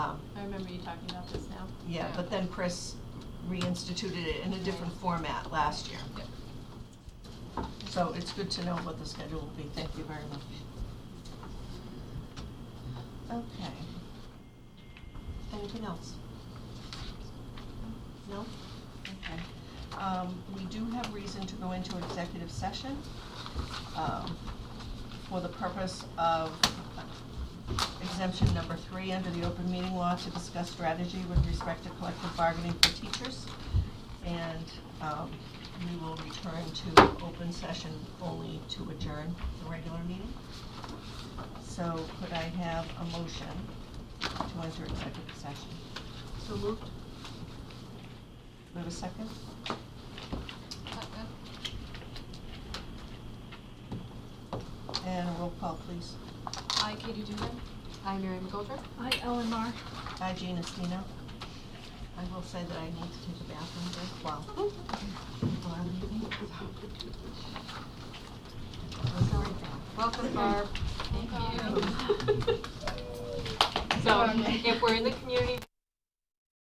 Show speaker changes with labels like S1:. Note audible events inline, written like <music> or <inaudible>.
S1: I remember you talking about this now.
S2: Um, Yeah, but then Chris reinstituted it in a different format last year.
S1: Yep.
S2: So it's good to know what the schedule will be, thank you very much. Okay. Anything else? No? Okay. Um, we do have reason to go into executive session, um, for the purpose of exemption number three under the open meeting law to discuss strategy with respect to collective bargaining for teachers. And, um, we will return to open session only to adjourn the regular meeting. So could I have a motion to enter executive session?
S1: So moved?
S2: Do we have a second?
S1: Uh,
S2: And a roll call, please.
S1: I, Katie Dugan. I, Mary McGoldrick.
S3: Hi, Ellen Mar.
S2: Hi, Jean Estino. I will say that I need to take a bathroom break while people are leaving.
S1: Welcome, <laughs> Barb. Thank you. So, if we're in the community